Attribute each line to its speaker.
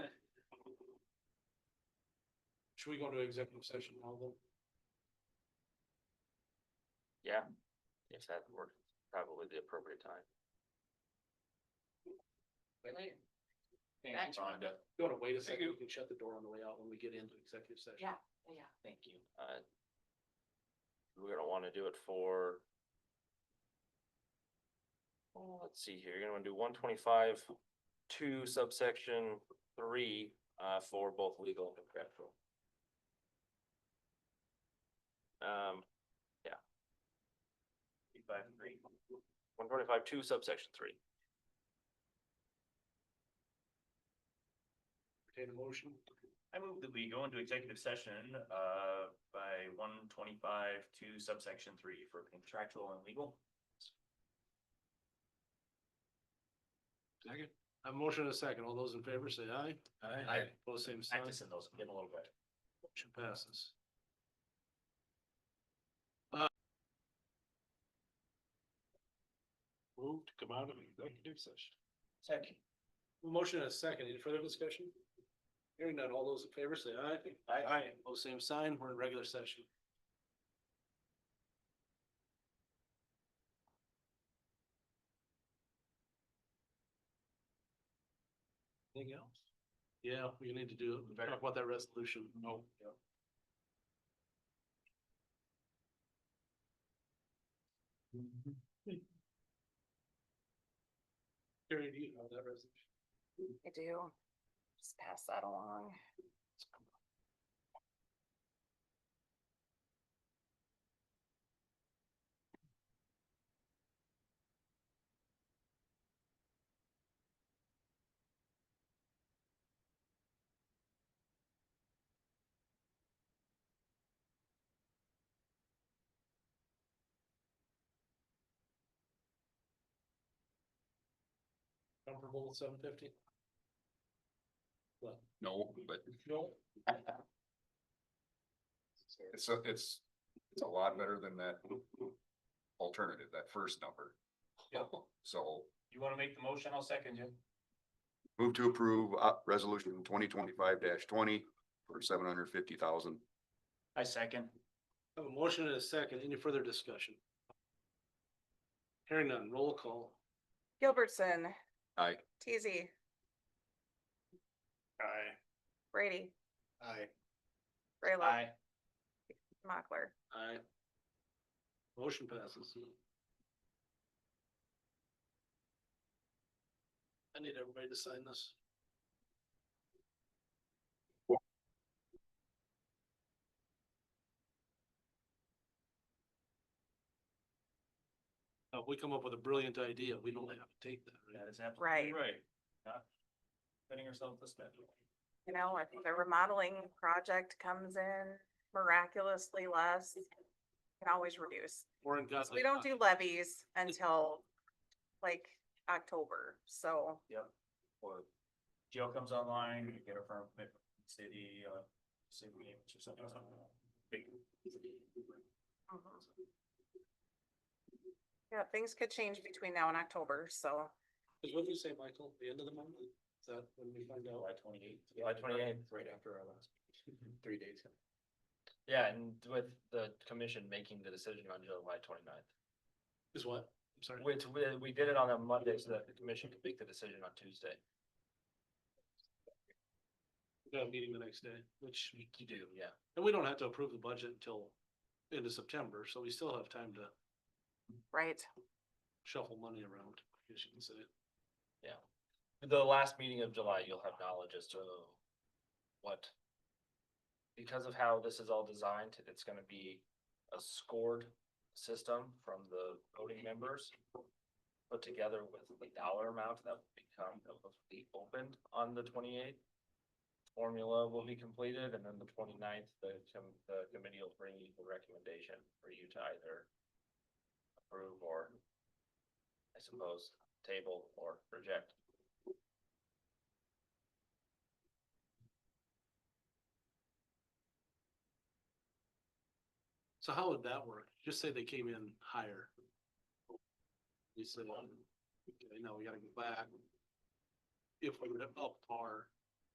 Speaker 1: Should we go to executive session now then?
Speaker 2: Yeah, if that were probably the appropriate time.
Speaker 3: Later.
Speaker 4: Thanks, Rhonda.
Speaker 1: You wanna wait a second, we can shut the door on the way out when we get into executive session.
Speaker 3: Yeah. Yeah,
Speaker 4: Thank you.
Speaker 2: Uh, We're gonna wanna do it for. Well, let's see here, you're gonna wanna do one twenty-five, two subsection three, uh, for both legal and contractual. Um, yeah. One twenty-five, two subsection three.
Speaker 1: Entertain a motion,
Speaker 4: I move that we go into executive session, uh, by one twenty-five to subsection three for contractual and legal.
Speaker 1: second, I have a motion and a second, all those in favor say aye.
Speaker 4: Aye.
Speaker 1: Both same sign,
Speaker 4: Practicing those, I'm getting a little bit.
Speaker 1: motion passes. Uh, Move to come out of executive session.
Speaker 4: Second.
Speaker 1: Motion and a second, any further discussion? Hearing none, all those in favor say aye. Aye. Both same sign, we're in regular session. Anything else? Yeah, we need to do, talk about that resolution. No. Mm-hmm. Terry, do you have that resolution?
Speaker 3: I do. Just pass that along.
Speaker 1: Comfortable with seven fifty?
Speaker 5: No, but
Speaker 1: No.
Speaker 5: it's, a- it's, it's a lot better than that alternative, that first number.
Speaker 1: Yeah.
Speaker 5: So
Speaker 4: You wanna make the motion? I'll second you.
Speaker 5: move to approve, uh, resolution twenty twenty-five twenty for seven hundred fifty thousand.
Speaker 4: I second.
Speaker 1: Have a motion and a second. Any further discussion? Hearing none, roll call.
Speaker 6: Gilbertson.
Speaker 5: Aye.
Speaker 6: Teasy,
Speaker 1: Aye.
Speaker 6: Brady,
Speaker 1: Aye.
Speaker 6: Rayla,
Speaker 4: Aye.
Speaker 6: Mockler.
Speaker 1: Aye. Motion passes. I need everybody to sign this. Uh, we come up with a brilliant idea. We don't have to take that, right?
Speaker 4: That is absolutely.
Speaker 6: Right.
Speaker 4: Right. Not Setting ourselves this bad.
Speaker 6: You know, if the remodeling project comes in miraculously less, you can always reduce.
Speaker 1: Warren got like-
Speaker 6: We don't do levies until like October, so
Speaker 4: Or jail comes online, we get a firm commitment from the city, uh, city payments or something.
Speaker 6: yeah, things could change between now and October, so.
Speaker 1: Is what you say, Michael, the end of the month? Is that when we find out?
Speaker 4: July twenty-eighth.
Speaker 2: July 28th.
Speaker 4: Right after our last, meeting. three days.
Speaker 2: Yeah, and with the commission making the decision on July 29th.
Speaker 1: Is what? I'm sorry.
Speaker 2: Which we, we did it on a Monday so that the commission could make the decision on Tuesday.
Speaker 1: We got a meeting the next day, which,
Speaker 2: You do, yeah.
Speaker 1: and we don't have to approve the budget until end of September, so we still have time to
Speaker 6: Right,
Speaker 1: shuffle money around, I guess you can say.
Speaker 2: The last meeting of July, you'll have knowledge as to what. Because of how this is all designed, it's gonna be a scored system from the voting members. Put together with the dollar amount that will become, that will be opened on the twenty-eighth. Formula will be completed and then the 29th, the, com- the committee will bring you the recommendation for you to either. Approve or. I suppose, table or reject.
Speaker 1: So how would that work? Just say they came in higher. We said, um, okay, now we gotta go back. If we were up par,